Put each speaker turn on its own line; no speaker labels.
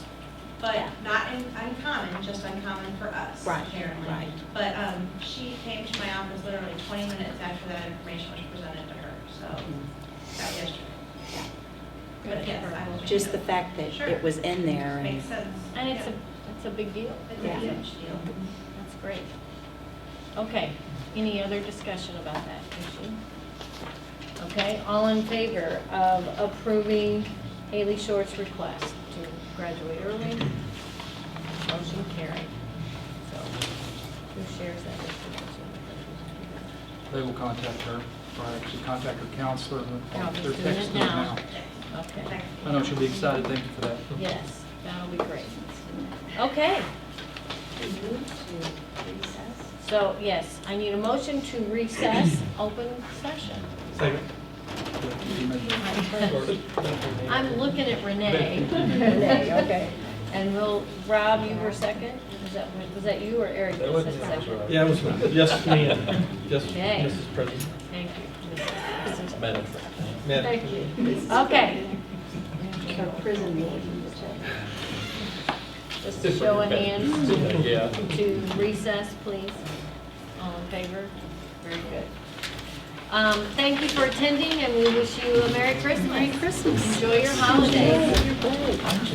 but
Yeah.
not in- uncommon, just uncommon for us,
Right,
apparently.
right.
But um, she came to my office literally 20 minutes after that information was presented to her, so, that yesterday.
Mm-hmm. Yeah.
But yes, I will. take
Just the
note.
fact that
Sure.
it was in there and,
Makes sense.
And it's a,
Yeah.
it's a big deal.
It's
Yeah. Mm-hmm.
a huge deal.
That's great. Okay, any other discussion about that issue? Okay, all in favor of approving Haley Short's request to graduate early? Motion carried. So, who shares that information?
They will contact her, or actually contact her counselor. and
Yeah, I'll just
they're
do it
texting her
now. Okay,
Thank you.
I know she'll be excited, thank you for that.
yes, that'll be great. Okay, so, yes, I need a motion to recess open session.
Second.
I'm looking at Renee.
Renee, okay.
And we'll, Rob, you were second? Was that, was that you or Eric
That
that
wasn't
said second?
Yeah, it was, yes, me and, yes,
Okay.
Mrs. President.
Thank you.
Madam.
Thank you. Okay.
prison meeting, which I-
Just a show of hands
Yeah.
to recess, please. All in favor? Very good. Um, thank you for attending and we wish you a Merry Christmas. Merry Christmas. Enjoy your holidays.